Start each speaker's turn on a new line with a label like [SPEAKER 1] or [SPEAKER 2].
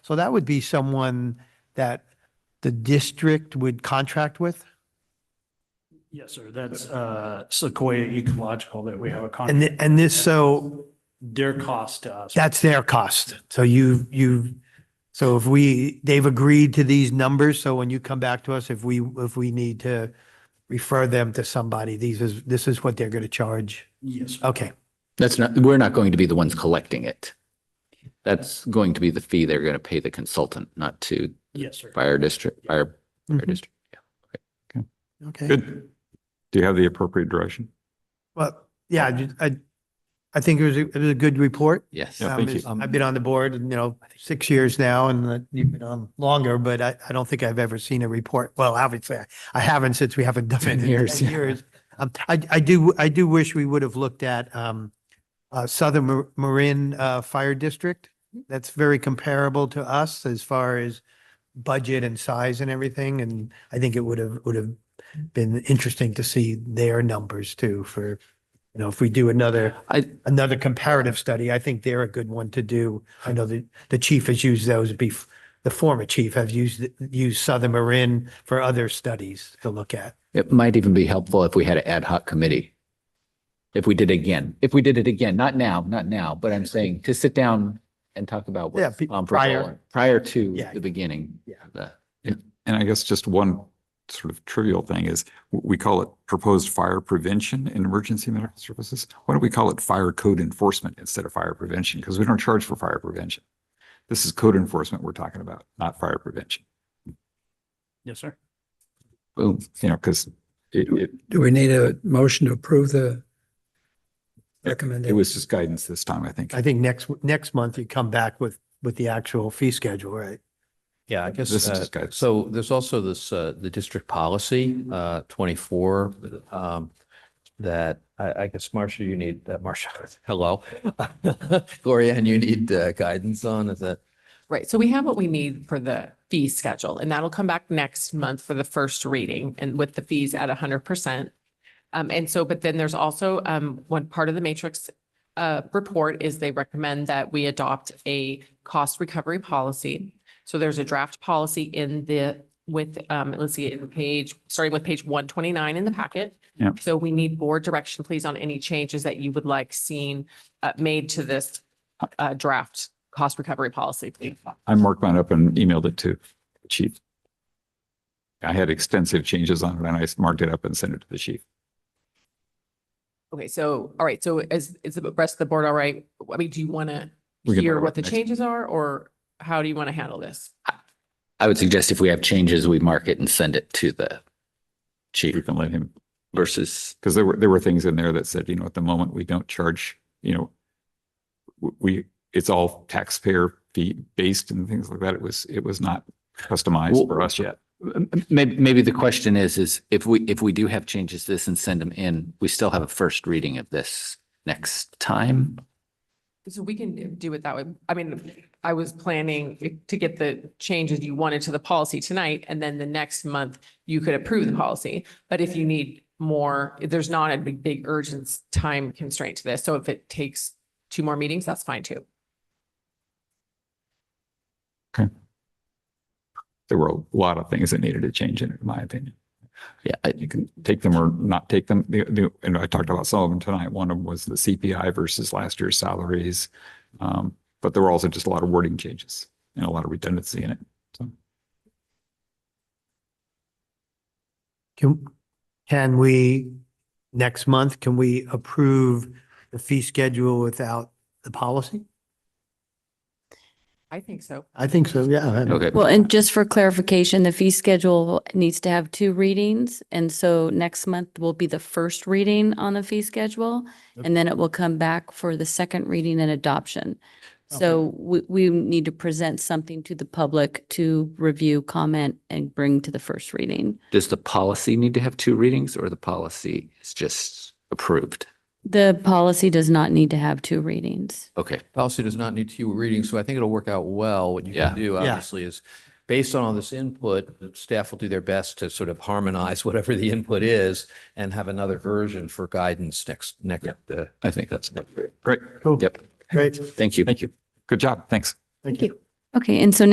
[SPEAKER 1] So that would be someone that the district would contract with?
[SPEAKER 2] Yes, sir. That's uh, Sequoia Ecological that we have a
[SPEAKER 1] And,
[SPEAKER 2] contract.
[SPEAKER 1] thi- and this, so
[SPEAKER 2] Their cost to us.
[SPEAKER 1] that's their cost. So you, you, so if we, they've agreed to these numbers, so when you come back to us, if we, if we need to refer them to somebody, these is, this is what they're going to charge.
[SPEAKER 2] Yes. sir.
[SPEAKER 1] Okay.
[SPEAKER 3] That's not, we're not going to be the ones collecting it. That's going to be the fee they're going to pay the consultant, not to
[SPEAKER 2] Yes, sir.
[SPEAKER 3] fire district, fire, fire
[SPEAKER 1] Mhm.
[SPEAKER 3] district.
[SPEAKER 1] Okay.
[SPEAKER 4] Good. Do you have the appropriate direction?
[SPEAKER 1] Well, yeah, I ju- I, I think it was, a- it was a good report.
[SPEAKER 3] Yes.
[SPEAKER 4] Yeah,
[SPEAKER 1] Um,
[SPEAKER 4] thank
[SPEAKER 1] it's-
[SPEAKER 4] you.
[SPEAKER 1] I've been on the board, you know, six years now and uh, you've been on longer, but I, I don't think I've ever seen a report. Well, obviously I- I haven't since we haven't done it in
[SPEAKER 3] 10
[SPEAKER 1] ten
[SPEAKER 3] years, yeah.
[SPEAKER 1] years. Um, I, I do, I do wish we would have looked at, um, uh, Southern Mar- Marin, uh, Fire District. That's very comparable to us as far as budget and size and everything. And I think it would have, would have been interesting to see their numbers too for, you know, if we do another
[SPEAKER 3] I,
[SPEAKER 1] another comparative study. I think they're a good one to do. I know the, the chief has used those bef, the former chief has used, used Southern Marin for other studies to look at.
[SPEAKER 3] it might even be helpful if we had an ad hoc committee. If we did again, if we did it again, not now, not now, but I'm saying to sit down and talk about
[SPEAKER 1] Yeah,
[SPEAKER 3] what's
[SPEAKER 1] pe-
[SPEAKER 3] comparable
[SPEAKER 1] prior.
[SPEAKER 3] prior to
[SPEAKER 1] Yeah.
[SPEAKER 3] the beginning.
[SPEAKER 1] Yeah.
[SPEAKER 3] The-
[SPEAKER 4] And I guess just one sort of trivial thing is w- we call it proposed fire prevention in emergency medical services. Why don't we call it fire code enforcement instead of fire prevention? Because we don't charge for fire prevention. This is code enforcement we're talking about, not fire prevention.
[SPEAKER 2] Yes, sir.
[SPEAKER 4] Boom, you know, because it, it,
[SPEAKER 5] Do we need a motion to approve the
[SPEAKER 4] it
[SPEAKER 5] recommendation?
[SPEAKER 4] was just guidance this time, I think.
[SPEAKER 1] I think next, next month you come back with, with the actual fee schedule, right?
[SPEAKER 6] Yeah, I guess,
[SPEAKER 4] This is
[SPEAKER 6] uh,
[SPEAKER 4] just guidance.
[SPEAKER 6] so there's also this, uh, the district policy, uh, twenty-four, um, that I, I guess, Marcia, you need, uh, Marcia, hello. Gloria, and you need, uh, guidance on, is that?
[SPEAKER 7] Right, so we have what we need for the fee schedule, and that'll come back next month for the first reading and with the fees at hundred percent. Um, and so, but then there's also, um, one part of the matrix, uh, report is they recommend that we adopt a cost recovery policy. So there's a draft policy in the, with, um, let's see, in the page, starting with page one twenty-nine in the packet.
[SPEAKER 4] Yep.
[SPEAKER 7] So we need board direction, please, on any changes that you would like seen, uh, made to this, uh, draft cost recovery policy, please.
[SPEAKER 4] I marked mine up and emailed it to the chief. I had extensive changes on it and I marked it up and sent it to the chief.
[SPEAKER 7] Okay, so, all right, so is, is the rest of the board all right? I mean, do you want to
[SPEAKER 4] We can
[SPEAKER 7] hear
[SPEAKER 4] borrow
[SPEAKER 7] what
[SPEAKER 4] it
[SPEAKER 7] the
[SPEAKER 4] next-
[SPEAKER 7] changes are, or how do you want to handle this?
[SPEAKER 3] I would suggest if we have changes, we mark it and send it to the
[SPEAKER 4] We
[SPEAKER 3] chief
[SPEAKER 4] can let him
[SPEAKER 3] versus
[SPEAKER 4] because there were, there were things in there that said, you know, at the moment, we don't charge, you know, w- we, it's all taxpayer fee based and things like that. It was, it was not customized
[SPEAKER 3] Well-
[SPEAKER 4] for us yet.
[SPEAKER 3] Maybe, maybe the question is, is if we, if we do have changes to this and send them in, we still have a first reading of this next time?
[SPEAKER 7] So we can do it that way. I mean, I was planning to get the changes you wanted to the policy tonight, and then the next month you could approve the policy. But if you need more, there's not a big, big urgent time constraint to this. So if it takes two more meetings, that's fine too.
[SPEAKER 4] There were a lot of things that needed to change in it, in my opinion.
[SPEAKER 3] Yeah, I-
[SPEAKER 4] You can take them or not take them. The, the, and I talked about some of them tonight. One of them was the CPI versus last year's salaries. Um, but there were also just a lot of wording changes and a lot of redundancy in it.
[SPEAKER 1] Can, can we, next month, can we approve the fee schedule without the policy?
[SPEAKER 7] I think so.
[SPEAKER 1] I think so, yeah.
[SPEAKER 3] okay.
[SPEAKER 8] Well, and just for clarification, the fee schedule needs to have two readings. And so next month will be the first reading on the fee schedule. And then it will come back for the second reading and adoption. So we, we need to present something to the public to review, comment, and bring to the first reading.
[SPEAKER 3] Does the policy need to have two readings or the policy is just approved?
[SPEAKER 8] The policy does not need to have two readings.
[SPEAKER 3] Okay,
[SPEAKER 6] policy does not need two readings, so I think it'll work out well. What you
[SPEAKER 3] Yeah.
[SPEAKER 6] can do,
[SPEAKER 1] Yeah.
[SPEAKER 6] obviously, is based on all this input, the staff will do their best to sort of harmonize whatever the input is and have another version for guidance next, next, uh,
[SPEAKER 3] I think that's,
[SPEAKER 4] Great.
[SPEAKER 1] Cool.
[SPEAKER 3] Yep.
[SPEAKER 1] Great.
[SPEAKER 3] thank you.
[SPEAKER 4] Thank you. Good job. Thanks.
[SPEAKER 1] Thank you.
[SPEAKER 8] Okay, and so now